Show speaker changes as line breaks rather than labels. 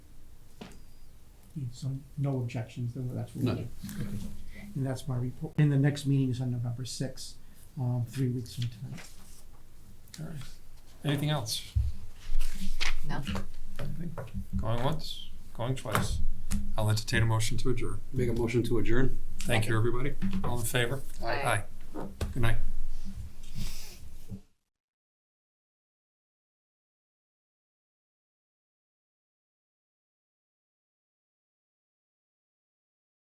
So no objections, then that's what
None.
we'll do. Okay. And that's my report. And the next meeting is on November sixth, um, three weeks from tonight.
All right. Anything else?
No.
Anything? Going once, going twice. I'll entertain a motion to adjourn.
Make a motion to adjourn?
Thank you, everybody. All in favor?
Aye.
Good night.